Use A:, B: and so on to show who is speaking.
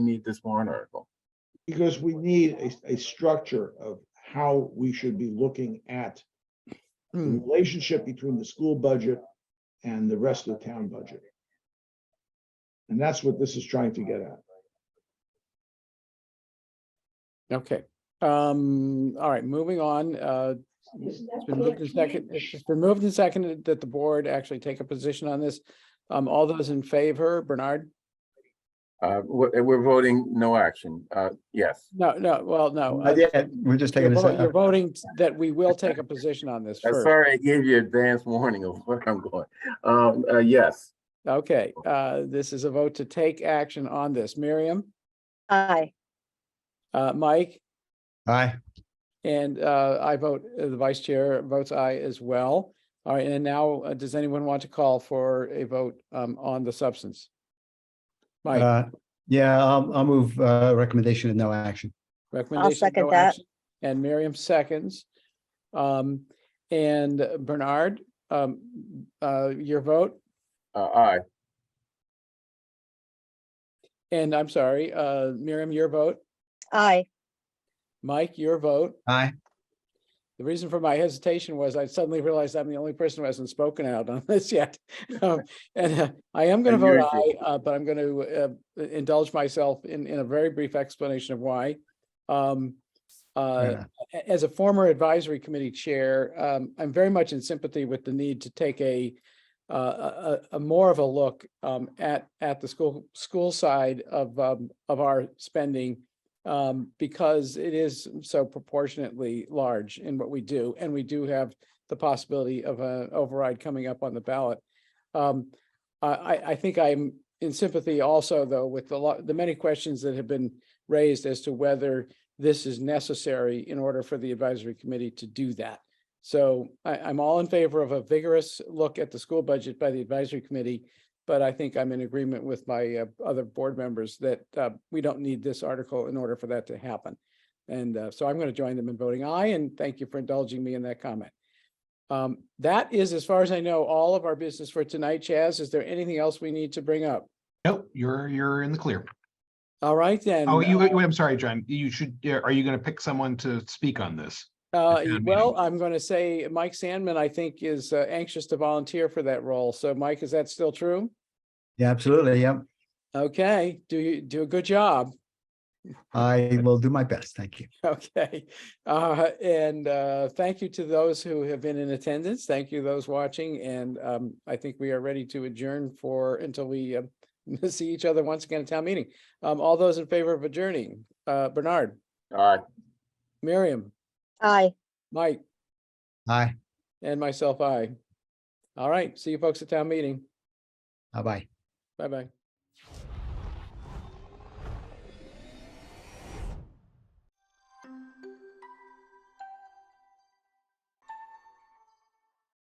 A: need this warrant article?
B: Because we need a, a structure of how we should be looking at the
C: Hmm.
B: relationship between the school budget and the rest of the town budget. And that's what this is trying to get at.
C: Okay, um, all right, moving on, uh, it's been moved and second, it's been moved and seconded that the board actually take a position on this. Um, all those in favor, Bernard?
A: Uh, we're, we're voting no action. Uh, yes.
C: No, no, well, no. uh,
D: Uh, yeah, We're just
C: You're
D: taking this.
C: vo- you're voting that we will take a position on this
A: I'm
C: first.
A: sorry I gave you advance warning of where I'm going. Um, uh, yes,
C: Okay, uh, this is a vote to take action on this. Miriam,
E: Aye.
C: uh, Mike,
D: Aye,
C: and, uh, I vote, uh, the vice chair votes aye as well. All right, and now, uh, does anyone want to call for a vote, um, on the substance? Mike?
D: uh, yeah, I'll, I'll move, uh, recommendation and no action.
C: Recommendation.
E: second
C: no
E: that.
C: action, And Miriam seconds. Um, and Bernard, um, uh, your vote,
A: uh, aye,
C: and I'm sorry, uh, Miriam, your vote,
E: Aye.
C: Mike, your vote.
D: Aye,
C: The reason for my hesitation was I suddenly realized I'm the only person who hasn't spoken out on this yet. Um, And uh, I am going to vote aye,
A: Unusual.
C: uh, but I'm going to uh, indulge myself in, in a very brief explanation of why. Um,
D: Fair
C: uh,
D: enough.
C: a- as a former advisory committee chair, um, I'm very much in sympathy with the need to take a uh, a, a- a more of a look um, at at the school school side of um, of our spending um, because it is so proportionately large in what we do, and we do have the possibility of an override coming up on the ballot. Um, I, I, I think I'm in sympathy also, though, with the lot, the many questions that have been raised as to whether this is necessary in order for the advisory committee to do that. So I, I'm all in favor of a vigorous look at the school budget by the advisory committee. But I think I'm in agreement with my uh, other board members that uh, we don't need this article in order for that to happen. And uh, so I'm going to join them in voting aye, and thank you for indulging me in that comment. Um, That is, as far as I know, all of our business for tonight. Chaz, is there anything else we need to bring up?
F: Nope, you're, you're in the clear.
C: All right, then.
F: Oh, you,
C: uh,
F: wait, I'm sorry, John, you should, yeah, are you gonna pick someone to speak on this?
C: Uh,
F: town
C: well,
F: meeting.
C: I'm going to say Mike Sandman, I think, is uh, anxious to volunteer for that role. So Mike, is that still true?
D: yeah, absolutely, yeah.
C: Okay, do you, do a good job.
D: I will do my best, thank you.
C: Okay, uh, and, uh, thank you to those who have been in attendance. Thank you, those watching. And, um, I think we are ready to adjourn for, until we, uh, see each other once again at town meeting. Um, all those in favor of adjourning, uh, Bernard,
A: aye.
C: Miriam,
E: Aye.
C: Mike,
D: Aye,
C: and myself, I. All right, see you folks at town meeting.
D: bye-bye.
C: Bye-bye.